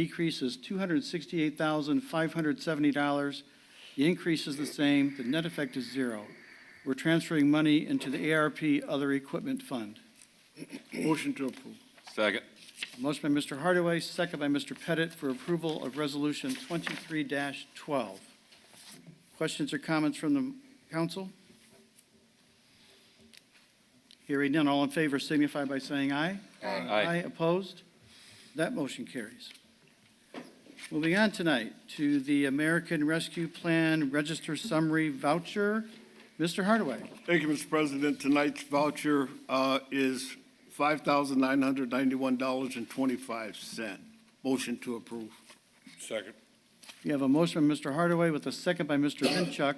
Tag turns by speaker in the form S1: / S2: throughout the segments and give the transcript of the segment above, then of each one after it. S1: Decrease is $268,570. The increase is the same. The net effect is zero. We're transferring money into the ARP Other Equipment Fund.
S2: Motion to approve.
S3: Second.
S1: Motion by Mr. Hardaway, second by Mr. Pettit for approval of Resolution 23-12. Questions or comments from the council? Hearing none, all in favor signify by saying aye. Aye, opposed? That motion carries. Moving on tonight to the American Rescue Plan Register Summary Voucher. Mr. Hardaway,
S2: Thank you, Mr. President. Tonight's voucher uh, is $5,991.25. Motion to approve.
S3: Second.
S1: you have a motion by Mr. Hardaway with a second by Mr. Minchuk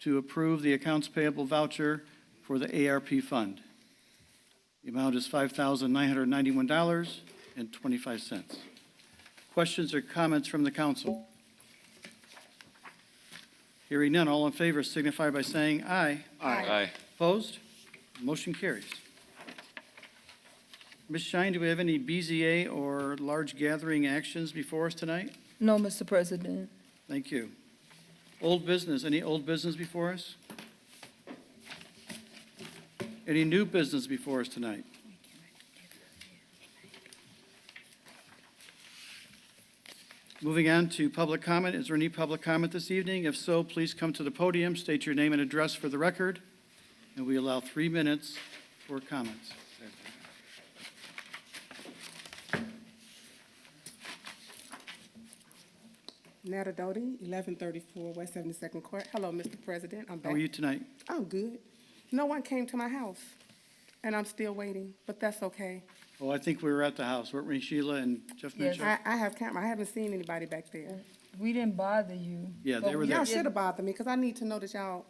S1: to approve the accounts payable voucher for the ARP fund. The amount is $5,991.25. Questions or comments from the council? Hearing none, all in favor signify by saying aye.
S3: Aye.
S1: Opposed? Motion carries. Ms. Shine, do we have any BZA or large gathering actions before us tonight?
S4: No, Mr. President.
S1: Thank you. Old business, any old business before us? Any new business before us tonight? Moving on to public comment, is there any public comment this evening? If so, please come to the podium, state your name and address for the record, and we allow three minutes for comments.
S5: Nata Doty, eleven thirty-four West Seventy-second Court. Hello, Mr. President, I'm
S1: How
S5: back.
S1: are you tonight?
S5: I'm good. No one came to my house, and I'm still waiting, but that's okay.
S1: Oh, I think we were at the house, weren't we, Sheila and Jeff
S4: Yes.
S1: Mitchell?
S5: I, I have camera, I haven't seen anybody back there.
S4: We didn't bother you.
S1: Yeah, they
S4: but
S1: were
S4: we
S1: there.
S5: Y'all
S4: did-
S5: should have bothered me, because I need to know that y'all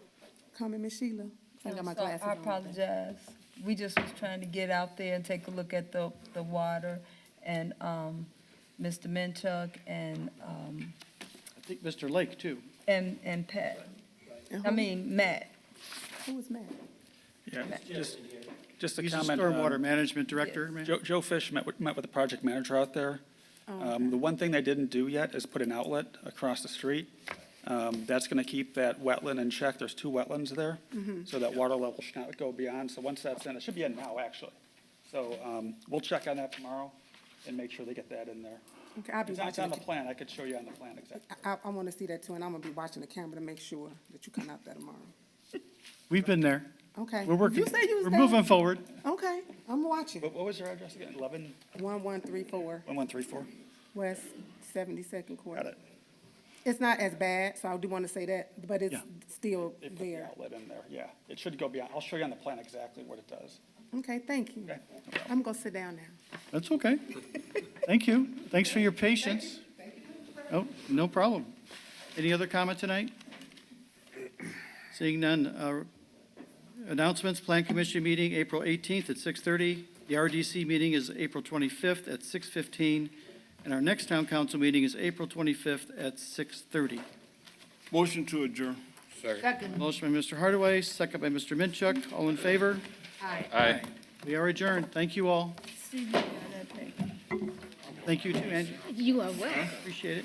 S5: coming, Miss Sheila. I got my
S4: I'm sorry,
S5: glasses
S4: I
S5: on.
S4: apologize. We just was trying to get out there and take a look at the, the water and, um, Mr. Minchuk and, um,
S1: I think Mr. Lake, too.
S4: and, and Pat.
S5: And
S4: I
S5: who-
S4: mean, Matt.
S5: Uh-huh. Who was Matt?
S6: Yeah, just, just a
S1: He's the
S6: comment.
S1: stormwater
S6: um,
S1: management director, man.
S6: Joe, Joe Fish met with, met with the project manager out there. Um, the one thing they didn't do yet is put an outlet across the street. Um, that's gonna keep that wetland in check. There's two wetlands there. So that water level should not go beyond. So once that's in, it should be in now, actually. So, um, we'll check on that tomorrow and make sure they get that in there.
S5: Okay, I'll be
S6: It's on- it's
S5: watching,
S6: on the
S5: the ca-
S6: plan. I could show you on the plan exactly.
S5: I, I want to see that too, and I'm gonna be watching the camera to make sure that you come out there tomorrow.
S1: We've been there.
S5: Okay.
S1: We're working.
S5: You say you was
S1: We're
S5: there.
S1: moving forward.
S5: Okay, I'm watching.
S6: What, what was your address again? Eleven,
S5: One, one, three, four,
S6: one, one, three, four?
S5: West Seventy-second Court.
S6: Got it.
S5: It's not as bad, so I do want to say that, but it's
S1: Yeah.
S5: still
S6: They put the
S5: there.
S6: outlet in there, yeah. It should go beyond, I'll show you on the plan exactly what it does.
S5: Okay, thank you.
S6: Okay.
S5: I'm gonna sit down now.
S1: That's okay. Thank you. Thanks for your patience. Oh, no problem. Any other comment tonight? Seeing none, uh, announcements, Plan Commission meeting, April 18th at 6:30. The RDC meeting is April 25th at 6:15. And our next town council meeting is April 25th at 6:30.
S2: Motion to adjourn.
S1: Motion by Mr. Hardaway, second by Mr. Minchuk. All in favor?
S3: Aye.
S1: We are adjourned. Thank you all.
S4: See you on that page.
S1: Thank you too, Angie.
S7: You are welcome.
S1: Appreciate it.